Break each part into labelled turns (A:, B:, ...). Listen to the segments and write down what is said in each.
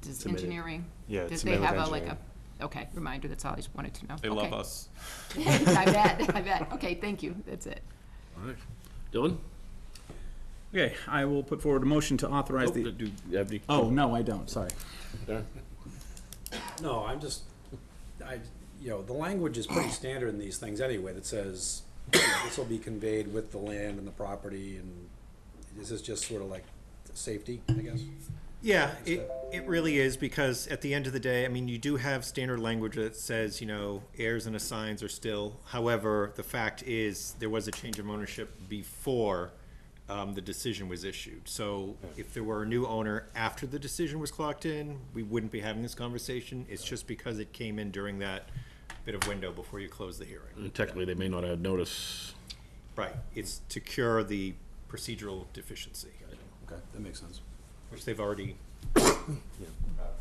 A: does
B: Submitted.
A: engineering?
B: Yeah, it's
A: Did they
B: submitted with
A: have a, like a,
B: engineering.
A: okay, reminder, that's all I just wanted to know.
C: They love
A: Okay.
C: us.
A: I bet, I bet. Okay, thank you, that's it.
D: All right. Dylan?
E: Okay, I will put forward a motion to authorize
D: Do
E: the,
D: you have any?
E: oh, no, I don't, sorry.
D: Darren?
F: No, I'm just, I, you know, the language is pretty standard in these things anyway, that says, you know, this will be conveyed with the land and the property, and this is just sort of like safety, I guess.
G: Yeah, it, it really is because at the end of the day, I mean, you do have standard language that says, you know, heirs and assigns are still. However, the fact is, there was a change of ownership before um, the decision was issued. So if there were a new owner after the decision was clocked in, we wouldn't be having this conversation. It's just because it came in during that bit of window before you close the hearing.
D: And Technically, they may not have notice.
G: Right, it's to cure the procedural deficiency,
F: Okay, that makes sense.
G: which they've already uh,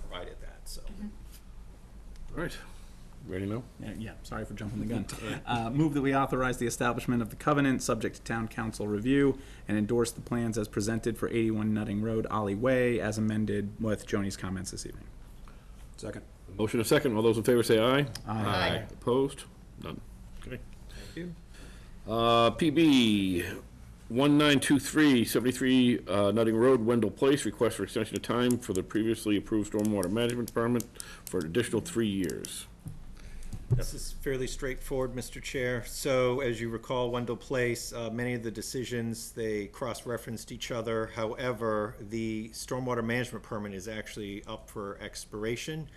G: provided that, so.
D: All right. Ready now?
E: Yeah, Yeah, sorry for jumping the gun. Uh, Move that we authorize the establishment of the covenant, subject to town council review, and endorse the plans as presented for 81 Nutting Road, Ollie Way, as amended with Joni's comments this evening.
F: Second.
D: Motion a second. All those in favor say aye.
A: Aye.
D: Opposed? None. Okay. Uh, PB 1923, 73 uh, Nutting Road, Wendell Place, request for extension of time for the previously approved stormwater management permit for an additional three years.
G: This is fairly straightforward, Mr. Chair. So as you recall, Wendell Place, uh, many of the decisions, they cross-referenced each other. However, the stormwater management permit is actually up for expiration.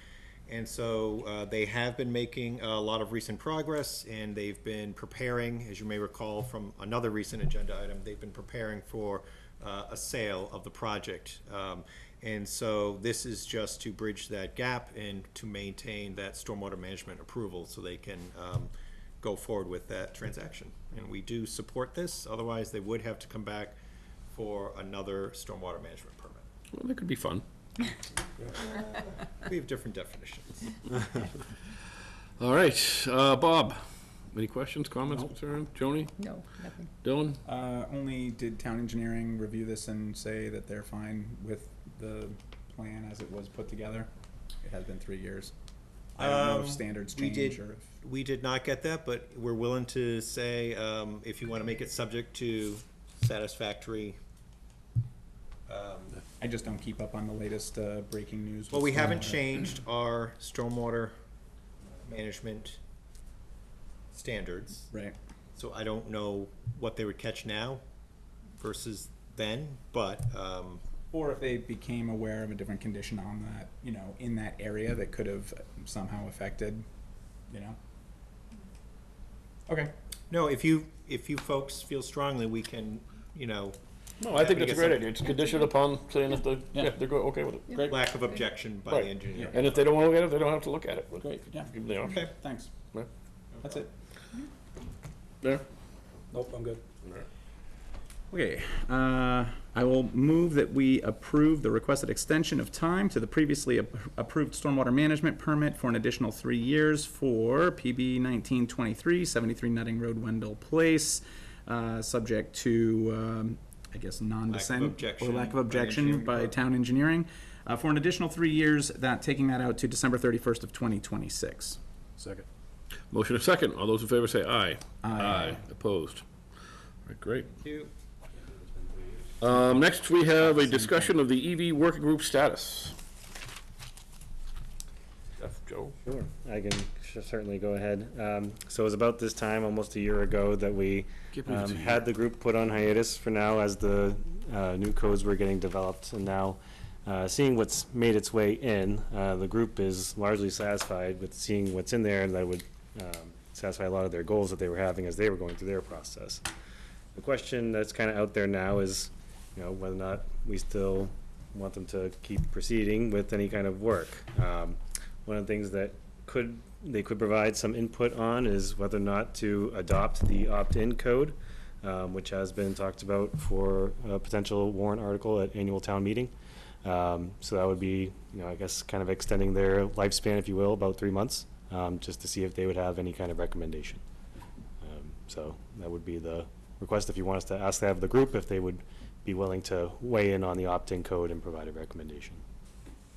G: And so uh, they have been making a lot of recent progress and they've been preparing, as you may recall from another recent agenda item, they've been preparing for uh, a sale of the project. Um, And so this is just to bridge that gap and to maintain that stormwater management approval so they can um, go forward with that transaction. And we do support this, otherwise they would have to come back for another stormwater management permit.
D: Well, that could be fun.
G: We have different definitions.
D: All right, uh, Bob, any questions, comments, concerns? Joni?
A: No, nothing.
D: Dylan?
E: Uh, Only did town engineering review this and say that they're fine with the plan as it was put together? It has been three years. I don't know if
G: Um,
E: standards
G: we did-
E: change or if.
G: We did not get that, but we're willing to say, um, if you want to make it subject to satisfactory. um,
E: I just don't keep up on the latest uh, breaking news.
G: Well, we
E: with
G: haven't
E: stormwater.
G: changed our stormwater management standards,
E: Right.
G: so I don't know what they would catch now versus then, but, um,
E: Or if they became aware of a different condition on that, you know, in that area that could have somehow affected, you know? Okay.
G: no, if you, if you folks feel strongly, we can, you know,
D: No, I think
G: we
D: that's a
G: get
D: great
G: some-
D: idea. It's conditioned upon saying if they,
E: Yeah.
D: yeah, they're go- okay with it. Great.
G: lack of objection by
D: Right.
G: the engineer.
D: And if they don't want to look at it, they don't have to look at it. But
E: Great, yeah.
D: Give them the option.
G: Okay.
E: Thanks.
D: Yeah.
E: That's it.
D: There.
F: Nope, I'm good.
E: Okay, uh, I will move that we approve the requested extension of time to the previously ap- approved stormwater management permit for an additional three years for PB 1923, 73 Nutting Road, Wendell Place, uh, subject to, um, I guess, non-dissent.
G: objection
E: Or lack of
G: by
E: objection
G: engineering
E: by
G: department.
E: town engineering, uh, for an additional three years, that, taking that out to December 31st of 2026.
F: Second.
D: Motion of second. All those in favor say aye. Aye. Opposed. All right, great.
G: You-
D: Um, next, we have a discussion of the EV working group status. Jeff, Joe?
B: Sure, I can sh- certainly go ahead. Um, So it was about this time, almost a year ago, that we
D: Can't believe it's
B: um,
D: a year.
B: had the group put on hiatus for now as the uh, new codes were getting developed. And now, uh, seeing what's made its way in, uh, the group is largely satisfied with seeing what's in there and that would um, satisfy a lot of their goals that they were having as they were going through their process. The question that's kind of out there now is, you know, whether or not we still want them to keep proceeding with any kind of work. Um, One of the things that could, they could provide some input on is whether or not to adopt the opt-in code, um, which has been talked about for a potential warrant article at annual town meeting. Um, So that would be, you know, I guess, kind of extending their lifespan, if you will, about three months, um, just to see if they would have any kind of recommendation. Um, So that would be the request if you want us to ask that of the group, if they would be willing to weigh in on the opt-in code and provide a recommendation.